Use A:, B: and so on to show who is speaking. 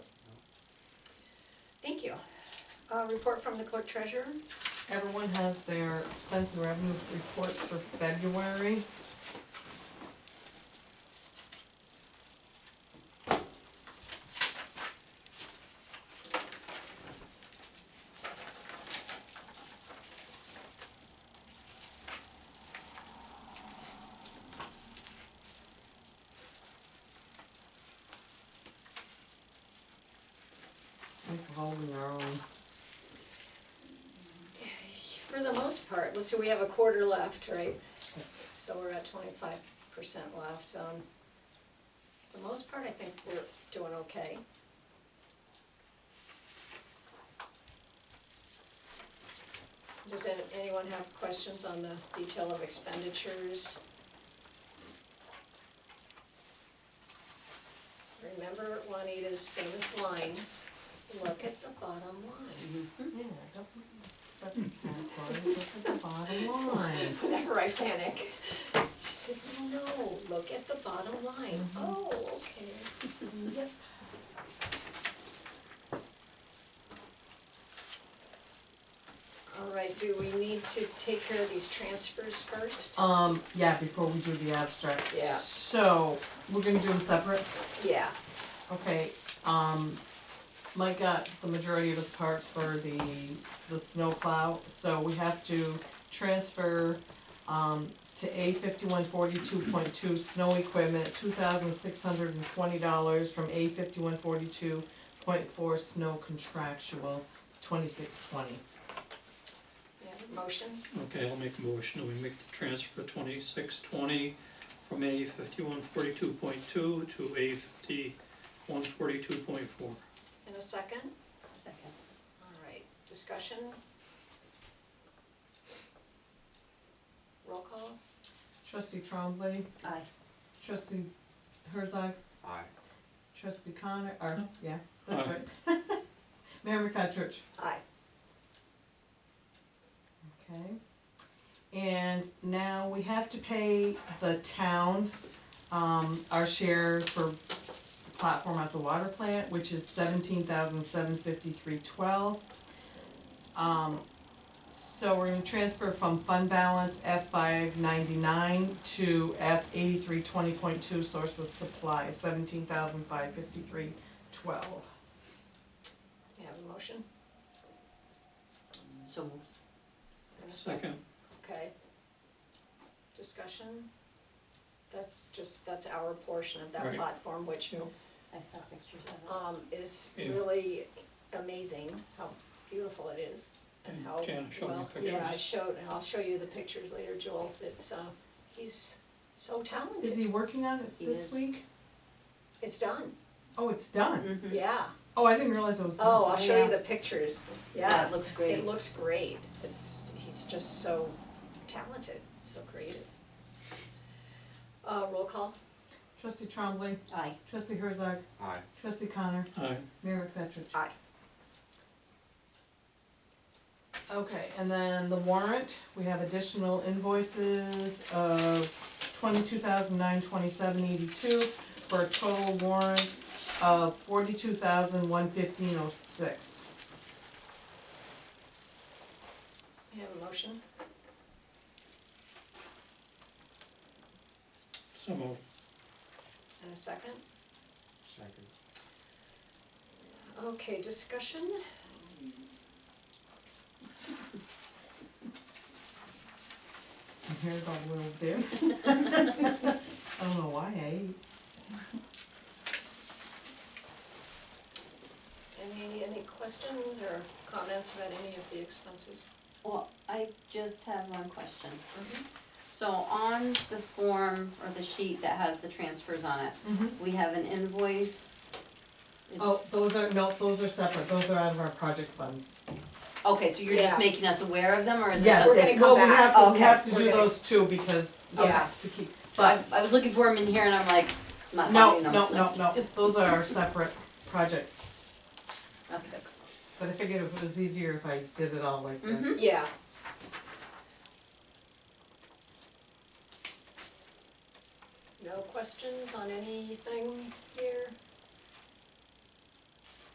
A: Thank you. Uh, report from the clerk treasurer.
B: Everyone has their expense and revenue reports for February. We're holding our own.
A: For the most part, let's see, we have a quarter left, right? So we're at twenty-five percent left. Um, for the most part, I think we're doing okay. Does any- anyone have questions on the detail of expenditures? Remember Juanita's famous line, look at the bottom line.
B: Yeah, don't accept categories, look at the bottom line.
A: Whenever I panic, she said, no, no, look at the bottom line. Oh, okay. Yep. All right, do we need to take care of these transfers first?
B: Um, yeah, before we do the abstract.
A: Yeah.
B: So, we're gonna do them separate,
A: Yeah,
B: okay, um, Mike got the majority of his parts for the, the snowplow, so we have to transfer, um, to A fifty-one forty-two point two snow equipment, two thousand six hundred and twenty dollars from A fifty-one forty-two point four snow contractual, twenty-six twenty.
A: yeah, motion,
C: Okay, I'll make a motion, that we make the transfer twenty-six twenty from A fifty-one forty-two point two to A fifty-one forty-two point four.
A: in a second?
D: Second.
A: All right, discussion? Roll call?
B: Trustee Trombley,
D: Aye.
B: trustee Herzog,
E: Aye.
B: trustee Connor, or, yeah, that's
C: Aye.
B: right. Mayor McCutcheon.
A: Aye.
B: Okay. And now we have to pay the town, um, our share for platform at the water plant, which is seventeen thousand seven fifty-three twelve. Um, so we're gonna transfer from fund balance F five ninety-nine to F eighty-three twenty point two source of supply, seventeen thousand five fifty-three twelve.
A: You have a motion?
D: So moved.
A: in a
C: Second,
A: Okay. Discussion? That's just, that's our portion of that
C: Right.
A: platform, which,
D: I saw pictures of
A: um, is
C: Yeah.
A: really amazing, how beautiful it is. And
C: And
A: how,
C: Jan showed me
A: well, yeah, I
C: pictures.
A: showed, and I'll show you the pictures later, Joel, it's, uh, he's so
B: Is
A: talented,
B: he working on it
D: He
B: this
D: is.
B: week?
A: it's done,
B: Oh, it's done.
D: it. Mhm.
A: yeah,
B: Oh, I didn't realize it was done.
A: oh, I'll show
D: Yeah.
A: you the pictures,
D: Yeah,
A: yeah,
D: it looks great.
A: it looks great, it's, he's just so talented, so creative. Uh, roll call?
B: Trustee Trombley,
D: Aye.
B: trustee Herzog,
E: Aye.
B: trustee Connor,
C: aye,
B: Mayor McFetrich.
A: Aye.
B: Okay, and then the warrant, we have additional invoices of twenty-two thousand nine twenty-seven eighty-two for a total warrant of forty-two thousand one fifteen oh six.
A: You have a motion?
C: so moved.
A: And a second?
E: Second.
A: Okay, discussion?
B: And here go little bit. I don't know why I ate.
A: Any, any questions or comments about any of the expenses?
D: Well, I just have one question. So on the form or the sheet that has the transfers on it, we have an invoice. Is-
B: Mm-hmm. Oh, those are, no, those are separate, those are out of our project funds.
D: Okay, so you're
A: Yeah.
D: just making us aware of them or is it
B: Yes,
A: We're
D: something?
A: gonna
B: it's-
A: come
B: well, we
A: back.
B: have to, we
D: Okay,
B: have to
A: we're
B: do
A: gonna-
B: those two because,
A: Yeah.
B: just to keep,
D: I,
B: but,
D: I was looking for them in here and I'm like, I'm not
B: no,
D: finding them.
B: no, no, no, those are our separate projects.
D: Okay.
B: But I figured it was easier if I did it all like this.
A: Yeah. No questions on anything here?